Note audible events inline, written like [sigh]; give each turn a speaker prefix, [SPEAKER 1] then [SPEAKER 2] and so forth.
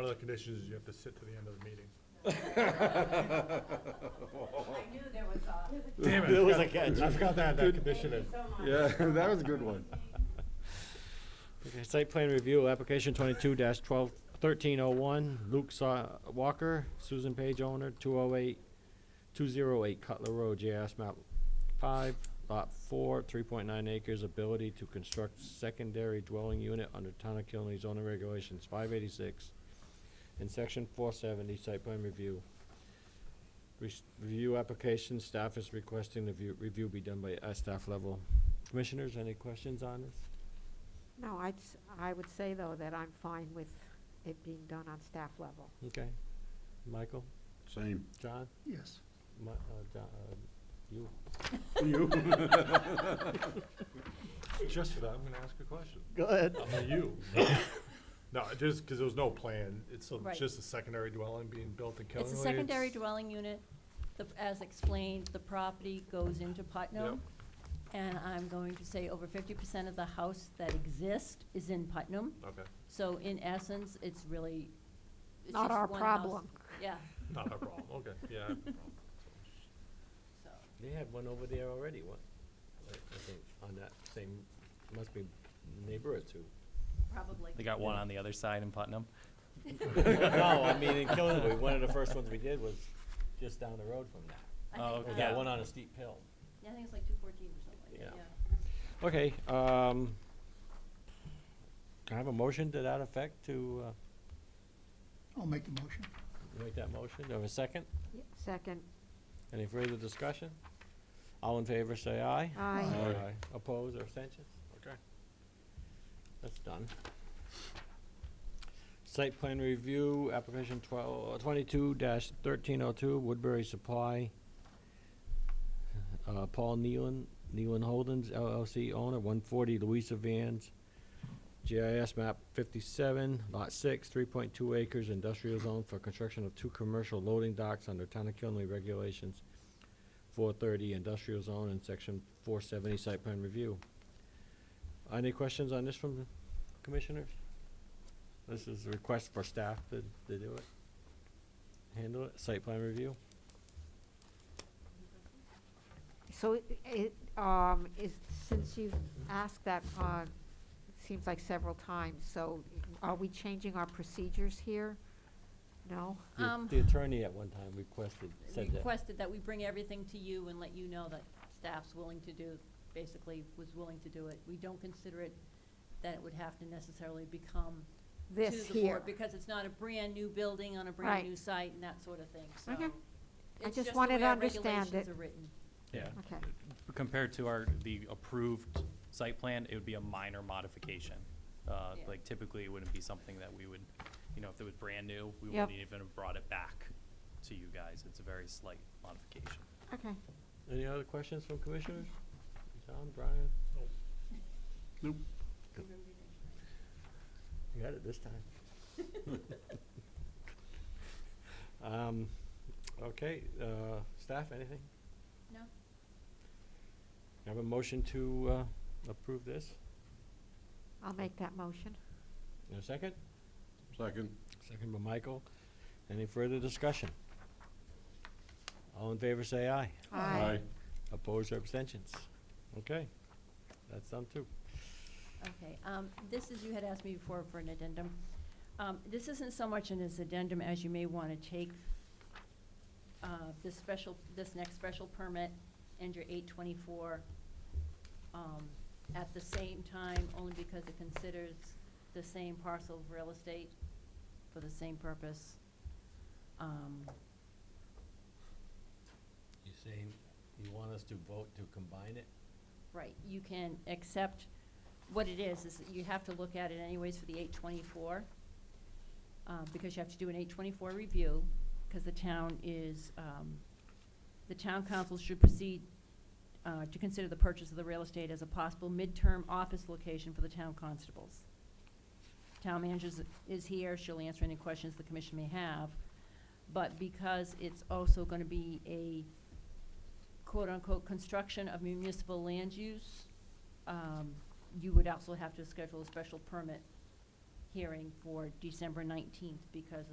[SPEAKER 1] One of the conditions is you have to sit to the end of the meeting.
[SPEAKER 2] I knew there was a.
[SPEAKER 1] Damn it.
[SPEAKER 3] There
[SPEAKER 1] I
[SPEAKER 3] was a
[SPEAKER 1] forgot-
[SPEAKER 3] catch.
[SPEAKER 1] I forgot that, that condition
[SPEAKER 2] Thank you
[SPEAKER 1] is.
[SPEAKER 2] so much.
[SPEAKER 4] Yeah, [laughs] that was a good one.
[SPEAKER 3] Okay, Site plan review, application twenty-two dash twelve, thirteen oh one, Luke Sa- Walker, Susan Page owner, two oh eight, two zero eight Cutler Road, JAS map five, lot four, three point nine acres, ability to construct secondary dwelling unit under Town of Killenly zoning regulations, five eighty-six, in section four seventy, site plan review. Res- Review application, staff is requesting the view, review be done by, at staff level. Commissioners, any questions on this?
[SPEAKER 5] No, I'd, s- I would say, though, that I'm fine with it being done on staff level.
[SPEAKER 3] Okay. Michael,
[SPEAKER 4] Same.
[SPEAKER 3] John,
[SPEAKER 4] Yes.
[SPEAKER 3] Mi- uh, John, uh, you.
[SPEAKER 4] You?
[SPEAKER 1] [laughs] Just for that, I'm gonna ask a question.
[SPEAKER 3] Go ahead.
[SPEAKER 1] I'm a you. No, just because there was no plan. It's a-
[SPEAKER 6] Right.
[SPEAKER 1] just a secondary dwelling being built in Kelly.
[SPEAKER 6] It's a secondary dwelling unit. The, as explained, the property goes into Putnam. And I'm going to say over fifty percent of the house that exists is in Putnam.
[SPEAKER 1] Okay,
[SPEAKER 6] So in essence, it's really, it's
[SPEAKER 5] Not
[SPEAKER 6] just
[SPEAKER 5] our
[SPEAKER 6] one house.
[SPEAKER 5] problem.
[SPEAKER 6] Yeah,
[SPEAKER 1] not a problem. Okay, yeah. I have no problem.
[SPEAKER 6] so.
[SPEAKER 3] They had one over there already, what? I I think on that same, must be neighbor or [laughs] two.
[SPEAKER 6] Probably.
[SPEAKER 7] They got one on the other side in Putnam.
[SPEAKER 3] No, I mean, in Killenly, one of the first ones we did was just down the road from that.
[SPEAKER 6] I
[SPEAKER 7] Oh,
[SPEAKER 6] think,
[SPEAKER 7] okay.
[SPEAKER 3] We
[SPEAKER 6] uh,
[SPEAKER 3] got one on a steep hill.
[SPEAKER 6] Yeah, I think it's like two fourteen or something like that,
[SPEAKER 3] Yeah.
[SPEAKER 6] yeah.
[SPEAKER 3] Okay, um, can I have a motion to that effect to, uh,
[SPEAKER 8] I'll make the motion.
[SPEAKER 3] make that motion? Do I have a second?
[SPEAKER 5] Ye- Second,
[SPEAKER 3] Any further discussion? All in favor, say aye.
[SPEAKER 5] Aye.
[SPEAKER 1] Aye.
[SPEAKER 3] Oppose or abstentions? Okay. That's done. Site plan review, application twelve, uh, twenty-two dash thirteen oh two, Woodbury Supply. Uh, Paul Nealon, Nealon Holdings LLC owner, one forty Louisa Vans. GIS map fifty-seven, lot six, three point two acres, industrial zone for construction of two commercial loading docks under Town of Killenly regulations. Four thirty industrial zone and section four seventy site plan review. Any questions on this from the commissioners? This is a request for staff to, to do it. Handle it, site plan review.
[SPEAKER 5] so i- it, um, is, since you've asked that, uh, it seems like several times, so are we changing our procedures here? No?
[SPEAKER 3] The-
[SPEAKER 6] Um,
[SPEAKER 3] The attorney at one time requested, said that.
[SPEAKER 6] requested that we bring everything to you and let you know that staff's willing to do, basically was willing to do it. We don't consider it that it would have to necessarily become to
[SPEAKER 5] This
[SPEAKER 6] the board
[SPEAKER 5] here.
[SPEAKER 6] because it's not a brand-new building on a brand-new
[SPEAKER 5] Right.
[SPEAKER 6] site and that sort of thing, so.
[SPEAKER 5] Okay. I
[SPEAKER 6] it's
[SPEAKER 5] just wanted
[SPEAKER 6] the way
[SPEAKER 5] to
[SPEAKER 6] our
[SPEAKER 5] understand
[SPEAKER 6] regulations
[SPEAKER 5] it.
[SPEAKER 6] are written.
[SPEAKER 7] Yeah.
[SPEAKER 5] Okay,
[SPEAKER 7] Compared to our, the approved site plan, it would be a minor modification. Uh,
[SPEAKER 6] Yeah.
[SPEAKER 7] Like typically, it wouldn't be something that we would, you know, if it was brand new, we
[SPEAKER 5] Yep.
[SPEAKER 7] wouldn't even have brought it back to you guys. It's a very slight modification.
[SPEAKER 5] okay.
[SPEAKER 3] Any other questions from commissioners? John, Brian?
[SPEAKER 6] [laughs]
[SPEAKER 3] You got it this time.
[SPEAKER 6] [laughs]
[SPEAKER 3] Um, okay, uh, staff, anything?
[SPEAKER 6] No?
[SPEAKER 3] Have a motion to, uh, approve this?
[SPEAKER 5] I'll make that motion.
[SPEAKER 3] In a second?
[SPEAKER 4] Second.
[SPEAKER 3] Second by Michael. Any further discussion? All in favor, say aye.
[SPEAKER 5] Aye.
[SPEAKER 3] Opposed or abstentions? Okay, that's done too.
[SPEAKER 6] Okay, um, this is, you had asked me before for an addendum. Um, this isn't so much an as addendum as you may wanna take, uh, this special, this next special permit and your eight twenty-four, um, at the same time, only because it considers the same parcel of real estate for the same purpose. Um,
[SPEAKER 3] You saying you want us to vote to combine it?
[SPEAKER 6] Right, you can accept, what it is, is that you have to look at it anyways for the eight twenty-four, uh, because you have to do an eight twenty-four review, because the town is, um, the town council should proceed, uh, to consider the purchase of the real estate as a possible midterm office location for the town constables. Town manager is- is here, she'll answer any questions the commission may have, but because it's also gonna be a, quote-unquote construction of municipal land use, um, you would also have to schedule a special permit hearing for December nineteenth because